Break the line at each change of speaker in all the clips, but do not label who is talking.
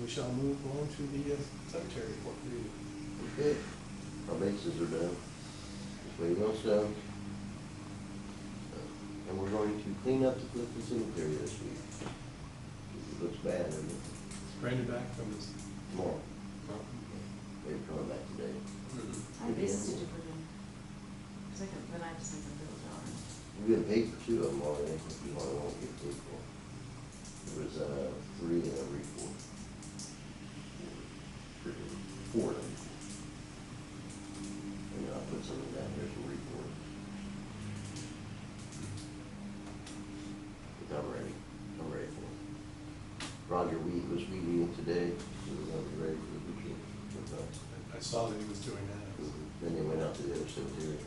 we shall move on to the uh, secretary report review.
Okay, our bases are done. Everything else done. Uh, And we're going to clean up the Clifton Cemetery this week. It looks bad, doesn't it?
Brandon back from his.
Tomorrow,
mountain.
they're coming back today.
I visited it with him. Cause I could, but I just think the bills are.
We've been paid for two of them already, if you want, I won't get paid for. There was, uh, three in every four. Four in every four. And I'll put some of that here for report. But I'm ready, I'm ready for it. Roger Weed was meeting today, so we're gonna be ready for the weekend.
I saw that he was doing that.
Then they went out to the other cemetery.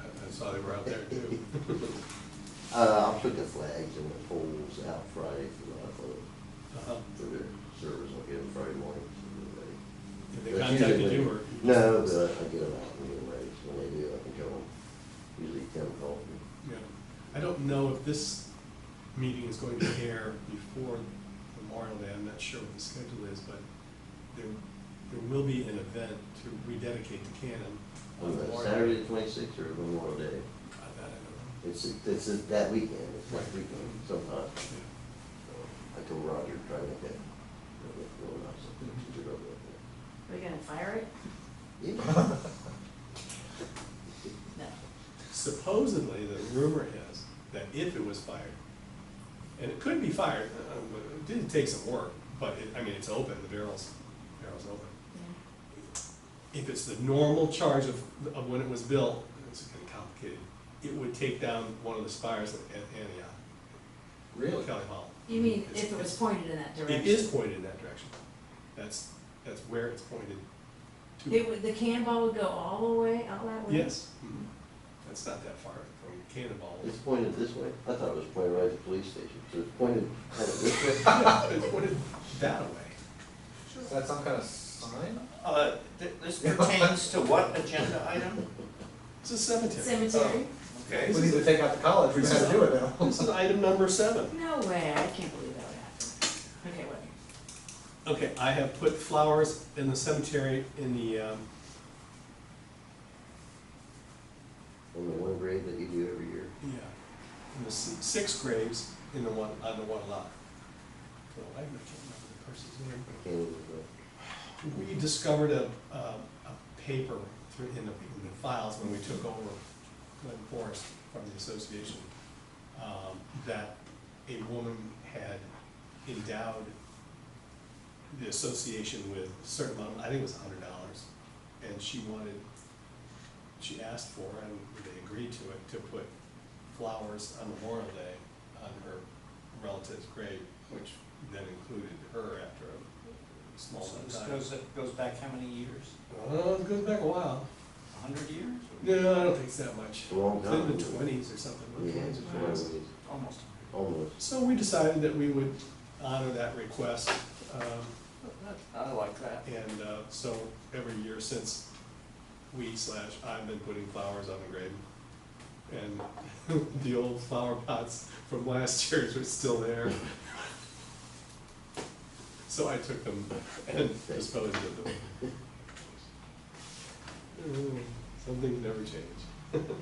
I- I saw they were out there too.
Uh, I took the flags and the poles out Friday for my phone,
Uh-huh.
for their service, I'll get them Friday morning. so
Did
they're
they
ready.
contacted you or?
No, but I get them out and get them ready, so when they do, I can go home, usually ten o'clock.
Yeah. I don't know if this meeting is going to air before Memorial Day, I'm not sure what the schedule is, but there, there will be an event to rededicate the cannon.
On the
Memorial
Saturday
Day.
the twenty-sixth or Memorial Day,
I I don't
it's, it's that weekend, it's that
Right.
weekend sometime.
know. Yeah.
So I told Roger, try to make that, make it real nice, I think she did it up
Are you gonna fire it?
there.
No.
Supposedly, the rumor is that if it was fired, and it could be fired, uh, but it did take some work, but it, I mean, it's open, the barrel's, barrel's open.
Yeah.
If it's the normal charge of, of when it was built, it's kind of complicated, it would take down one of the spires at at Antioch.
Really?
Kelly Hall.
You mean
It's-
if it was pointed in that direction?
It is pointed in that direction. That's, that's where it's pointed
It
to.
would, the cannonball would go all the way out that way?
Yes. Mhm. That's not that far from Cannonball.
It's pointed this way, I thought it was pointed right at the police station, so it's pointed kind of this way.
It's pointed that way.
Is that some kind of sign?
Uh, th- this pertains to what agenda item?
It's a cemetery. Oh,
Cemetery?
Okay,
We need to take out the college, we gotta do it now.
This is item number seven.
No way, I can't believe that would happen. Okay, whatever.
Okay, I have put flowers in the cemetery in the, um,
Only one grade that you do every year.
yeah, in the s- six graves in the one, on the one lot. So I can't remember the person's name.
Can't even, uh,
We discovered a, um, a paper through, in the, in the files when we took over Glen Forest from the association, um, that a woman had endowed the association with a certain amount, I think it was a hundred dollars, and she wanted, she asked for, and they agreed to it, to put flowers on Memorial Day on her relative's grave, which then included her after a small
so
amount of
this
time.
goes, it goes back how many years?
Uh, it goes back a while.
A hundred years?
No, I don't think it's that much.
It's a long
It's in the
time.
twenties or something.
yeah,
late 20s or
it's one of
20s.
these,
Almost a
almost.
So we decided that we would honor that request, um,
hundred. I like that.
and, uh, so every year since we slash I've been putting flowers on the grave. And the old flower pots from last year's were still there. So I took them and disposed of them. Ooh, Some things Mm, never change.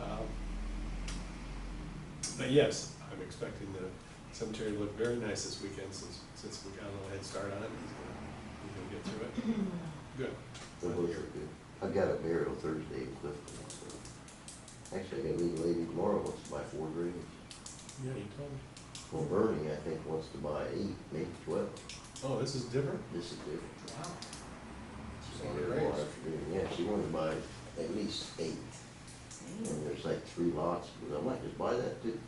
Um, But yes, I'm expecting the cemetery to look very nice this weekend since, since we got a little head start on it. He's gonna, he's gonna get through it.
The
Good.
books are good. I've got a burial Thursday in Clifton. so. Actually, I got a legal lady tomorrow wants to buy four graves.
Yeah, you told me.
Well, Bernie, I think, wants to buy eight, maybe twelve.
Oh, this is different?
This is different.
Wow.
She's
So
gonna do it
graves.
tomorrow afternoon. Yeah, she wanted to buy at least eight. And there's like three lots, but I might just buy that too.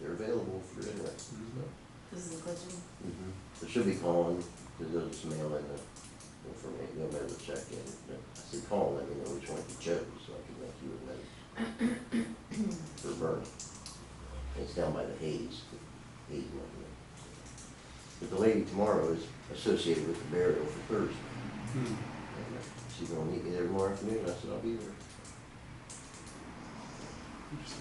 They're available for anyway.
Mhm.
This is a glitch.
They Mm-hmm. should be calling, because they'll just mail in the, for me, they'll mail the check in. But I said, call, and let me know which one you chose, so I can make you a note. For Bernie. It's down by the Hayes, the Hayes one. there. But the lady tomorrow is associated with the burial for Thursday.
Hmm.
And uh, She's gonna meet me there tomorrow afternoon, I said, I'll be there.
Interesting.